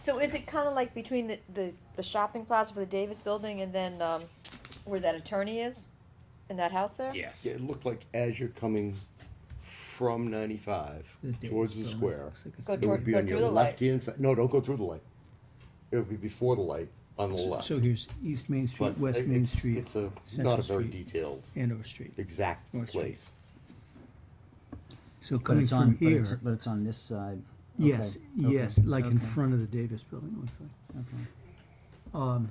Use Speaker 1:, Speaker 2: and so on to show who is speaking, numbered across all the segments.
Speaker 1: So is it kinda like between the, the, the shopping plaza for the Davis building and then, um, where that attorney is? In that house there?
Speaker 2: Yes.
Speaker 3: Yeah, it looked like as you're coming from ninety-five towards the square,
Speaker 1: Go
Speaker 3: it would
Speaker 1: toward,
Speaker 3: be
Speaker 1: go
Speaker 3: on
Speaker 1: through
Speaker 3: your
Speaker 1: the light.
Speaker 3: left-hand side, no, don't go through the light. It would be before the light on the left.
Speaker 4: So here's East Main Street,
Speaker 3: But
Speaker 4: West
Speaker 3: it-
Speaker 4: Main
Speaker 3: it's-
Speaker 4: Street,
Speaker 3: It's a, not
Speaker 4: Central
Speaker 3: a very
Speaker 4: Street.
Speaker 3: detailed,
Speaker 4: Andover Street.
Speaker 3: exact
Speaker 4: North Street.
Speaker 3: place.
Speaker 4: So
Speaker 5: But
Speaker 4: coming
Speaker 5: it's on,
Speaker 4: from
Speaker 5: but it's,
Speaker 4: here,
Speaker 5: but it's on this side. Okay,
Speaker 4: yes,
Speaker 5: okay,
Speaker 4: yes, like in
Speaker 5: okay,
Speaker 4: front of the Davis building, it looks like.
Speaker 5: okay.
Speaker 4: Um,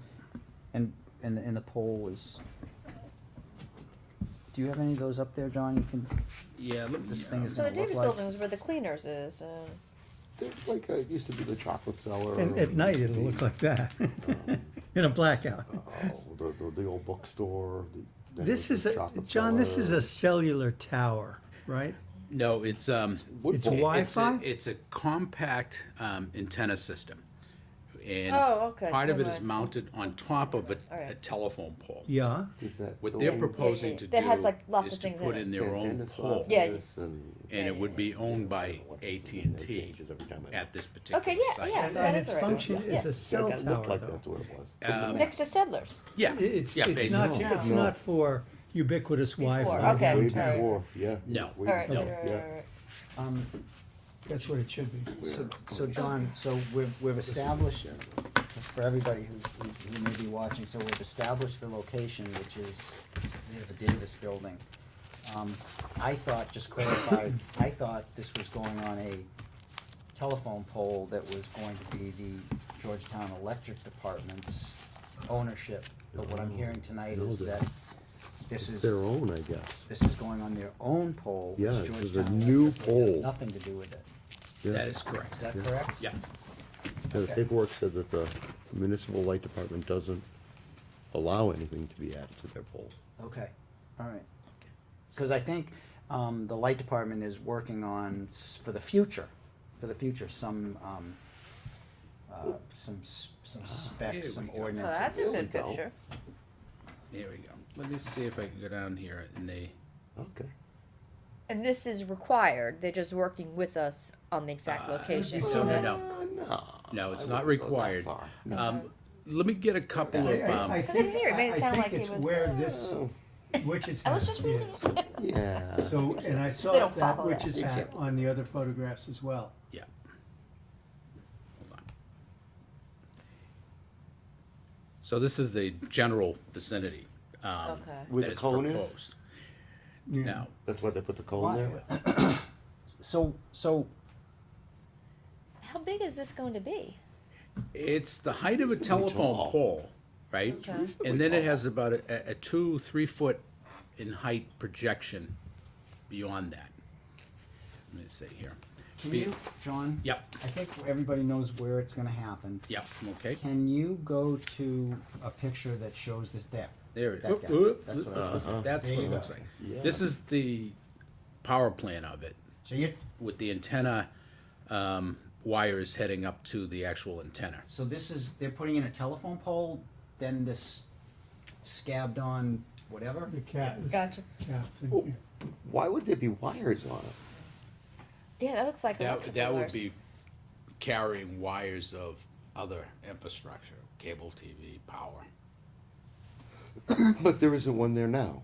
Speaker 5: And, and, and the pole is, do you have any of those up there, John? You can,
Speaker 2: Yeah. Let me,
Speaker 5: This thing is-
Speaker 1: So the
Speaker 5: gonna look
Speaker 1: Davis
Speaker 5: like-
Speaker 1: building is where the cleaners is, uh,
Speaker 3: It's like, uh, it used to be the chocolate cellar.
Speaker 4: and at
Speaker 3: and
Speaker 4: night, it'll look
Speaker 3: the-
Speaker 4: like that, in a blackout.
Speaker 3: Oh, the, the, the old bookstore. the- then
Speaker 4: This
Speaker 3: there's
Speaker 4: is
Speaker 3: the
Speaker 4: a,
Speaker 3: chocolate
Speaker 4: John, this is
Speaker 3: cellar.
Speaker 4: a cellular tower, right?
Speaker 2: no, it's um.
Speaker 3: Wood
Speaker 4: it's
Speaker 3: pole.
Speaker 4: wi-
Speaker 2: It's a,
Speaker 4: Wi-Fi?
Speaker 2: it's a compact um, antenna system. And
Speaker 1: Oh, okay,
Speaker 2: part of it
Speaker 1: never
Speaker 2: is
Speaker 1: mind.
Speaker 2: mounted on top of a,
Speaker 1: All right.
Speaker 2: a telephone pole.
Speaker 4: Yeah,
Speaker 3: Is that
Speaker 2: What
Speaker 3: the
Speaker 2: they're
Speaker 3: one-
Speaker 2: proposing
Speaker 1: yeah,
Speaker 2: to
Speaker 1: that has,
Speaker 2: do
Speaker 1: like, lots
Speaker 2: is
Speaker 1: of
Speaker 2: to
Speaker 1: things
Speaker 2: put
Speaker 1: in it.
Speaker 2: in
Speaker 3: the
Speaker 2: their own
Speaker 3: dentist's
Speaker 2: pole,
Speaker 1: Yeah.
Speaker 3: office and.
Speaker 2: and it would be owned by
Speaker 3: What is
Speaker 2: AT
Speaker 3: it?
Speaker 2: and
Speaker 3: It
Speaker 2: T
Speaker 3: changes every time I
Speaker 2: at
Speaker 3: look.
Speaker 2: this particular
Speaker 1: yeah,
Speaker 2: site.
Speaker 1: yeah.
Speaker 4: and
Speaker 1: So that
Speaker 4: and
Speaker 1: is
Speaker 4: its
Speaker 1: the right one.
Speaker 4: function
Speaker 1: Yeah.
Speaker 4: is a
Speaker 1: That-
Speaker 3: That-
Speaker 4: cell
Speaker 3: that looked
Speaker 4: tower,
Speaker 3: like
Speaker 4: though.
Speaker 3: that's what it was.
Speaker 2: Um,
Speaker 1: next to Settlers.
Speaker 2: Yeah,
Speaker 4: It- It's,
Speaker 2: yeah,
Speaker 4: it's not,
Speaker 3: basically.
Speaker 4: it's
Speaker 3: No.
Speaker 4: not for ubiquitous
Speaker 1: Before,
Speaker 4: Wi-Fi.
Speaker 1: okay.
Speaker 3: Way
Speaker 1: all right.
Speaker 3: before, yeah.
Speaker 2: No.
Speaker 3: way
Speaker 1: Alright,
Speaker 3: before,
Speaker 1: right, right,
Speaker 3: yeah.
Speaker 1: right, right.
Speaker 5: um,
Speaker 4: That's what it should be.
Speaker 5: so, so John, so we've, we've established, for everybody who, who- who may be watching, so we've established the location, which is near the Davis Building. Um, I thought, just clarified, I thought this was going on a telephone pole that was going to be the Georgetown Electric Department's ownership. But what I'm hearing tonight is that this
Speaker 3: It's
Speaker 5: is,
Speaker 3: their own, I guess.
Speaker 5: this is going on their own pole. which
Speaker 3: Yeah, this is a
Speaker 5: Georgetown
Speaker 3: new
Speaker 5: Electric has
Speaker 3: pole.
Speaker 5: Nothing to do with it.
Speaker 3: Yeah.
Speaker 2: that is correct.
Speaker 5: Is that correct?
Speaker 2: Yeah,
Speaker 3: Yeah, The paperwork said that the municipal light department doesn't allow anything to be added to their poles.
Speaker 5: Okay, all right. Because I think um, the light department is working on, s- for the future, for the future, some, um, uh, some, s- some
Speaker 2: Ah, Here
Speaker 5: specs, some
Speaker 2: we go.
Speaker 1: Well,
Speaker 5: ordinances.
Speaker 1: Oh, that's a
Speaker 3: we
Speaker 1: good
Speaker 3: go.
Speaker 1: picture.
Speaker 2: here we go. Let me see if I can go down here and they,
Speaker 3: Okay.
Speaker 1: And this is required, they're just working with us on the exact location.
Speaker 2: so
Speaker 1: Is that-
Speaker 2: no.
Speaker 3: No.
Speaker 2: No, it's
Speaker 3: Ah, I
Speaker 2: not
Speaker 3: wouldn't go that
Speaker 2: required.
Speaker 3: far.
Speaker 2: Um, let me get a couple of, um,
Speaker 1: Because in think- here, it made it I- I sound think like it it's
Speaker 4: it's
Speaker 1: was, where
Speaker 4: where
Speaker 1: uh,
Speaker 4: this,
Speaker 3: Oh,
Speaker 4: which is.
Speaker 1: I was just reading it.
Speaker 3: Yeah.
Speaker 4: So, and I
Speaker 1: They
Speaker 4: saw
Speaker 1: don't
Speaker 4: that
Speaker 1: follow
Speaker 4: which
Speaker 1: that.
Speaker 4: is hat on the other photographs as well.
Speaker 2: yeah. Hold on. So this is the general vicinity,
Speaker 5: Oh.
Speaker 2: um,
Speaker 1: Okay.
Speaker 3: With
Speaker 2: that
Speaker 3: a
Speaker 2: is
Speaker 3: cone in?
Speaker 2: proposed.
Speaker 4: Yeah.
Speaker 2: Now,
Speaker 3: That's why they put the coal in there?
Speaker 5: So, so,
Speaker 1: How big is this going to be?
Speaker 2: It's the height of a telephone
Speaker 3: tall.
Speaker 2: pole, right?
Speaker 1: Okay.
Speaker 2: And then it has about a, a- a two, three foot in height projection beyond that. Let me see here.
Speaker 5: can
Speaker 2: Be-
Speaker 5: you, John?
Speaker 2: Yep,
Speaker 5: I think everybody knows where it's gonna happen.
Speaker 2: yep, okay.
Speaker 5: Can you go to a picture that shows this there?
Speaker 2: There it
Speaker 5: That
Speaker 2: is.
Speaker 5: guy.
Speaker 2: Oop,
Speaker 5: That's
Speaker 2: oop,
Speaker 5: what I was-
Speaker 2: oop. That's
Speaker 5: There
Speaker 2: what
Speaker 5: you
Speaker 2: it
Speaker 5: go.
Speaker 2: looks like.
Speaker 3: Yeah.
Speaker 2: This is the power plant of it
Speaker 5: So you,
Speaker 2: with the antenna um, wires heading up to the actual antenna.
Speaker 5: so this is, they're putting in a telephone pole, then this scabbed on whatever?
Speaker 4: The cat is
Speaker 1: Gotcha.
Speaker 4: capped in
Speaker 3: Oh,
Speaker 4: here.
Speaker 3: Why would there be wires on it?
Speaker 1: Yeah, that looks like
Speaker 2: That,
Speaker 1: electrical
Speaker 2: that would
Speaker 1: wires.
Speaker 2: be carrying wires of other infrastructure, cable TV, power.
Speaker 3: But there isn't one there now.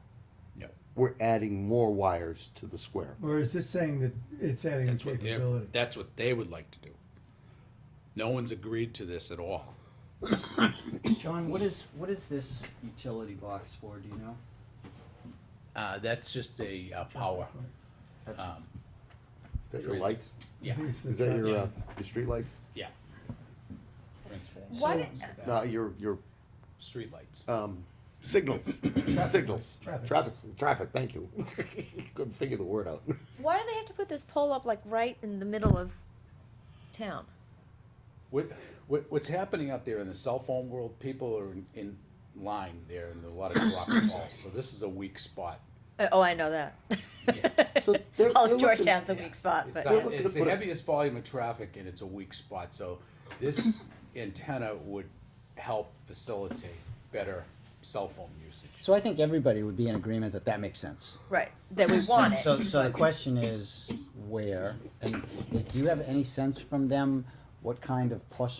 Speaker 2: No.
Speaker 3: We're adding more wires to the square.
Speaker 4: Or is this saying that it's adding a
Speaker 2: That's what they're,
Speaker 4: capability?
Speaker 2: that's what they would like to do. No one's agreed to this at all.
Speaker 5: John, what is, what is this utility box for, do you know?
Speaker 2: Uh, that's just a, uh power,
Speaker 5: That's-
Speaker 2: um,
Speaker 3: That your
Speaker 2: Trees.
Speaker 3: lights?
Speaker 2: yeah,
Speaker 4: I think it's
Speaker 3: Is that your,
Speaker 2: Yeah.
Speaker 3: uh, your streetlights?
Speaker 2: yeah. Transformers.
Speaker 1: Why did-
Speaker 3: No, your, your,
Speaker 2: Streetlights.
Speaker 3: um, signals, signals.
Speaker 4: Traffic.
Speaker 3: Traffic, traffic, thank you. Couldn't figure the word out.
Speaker 1: Why do they have to put this pole up like right in the middle of town?
Speaker 2: What, what, what's happening out there in the cell phone world, people are in, in line there and a lot of drop balls, so this is a weak spot.
Speaker 1: Uh, oh, I know that.
Speaker 3: So they're-
Speaker 1: All
Speaker 3: they're
Speaker 1: of
Speaker 3: looking-
Speaker 1: Georgetown's a weak spot,
Speaker 2: It's
Speaker 1: but
Speaker 2: not-
Speaker 3: They're looking to
Speaker 2: It's the
Speaker 3: put a-
Speaker 2: heaviest volume of traffic and it's a weak spot, so this antenna would help facilitate better cell phone usage.
Speaker 5: So I think everybody would be in agreement that that makes sense.
Speaker 1: right that we want it.
Speaker 5: So, so the question is where, and is- do you have any sense from them what kind of plus or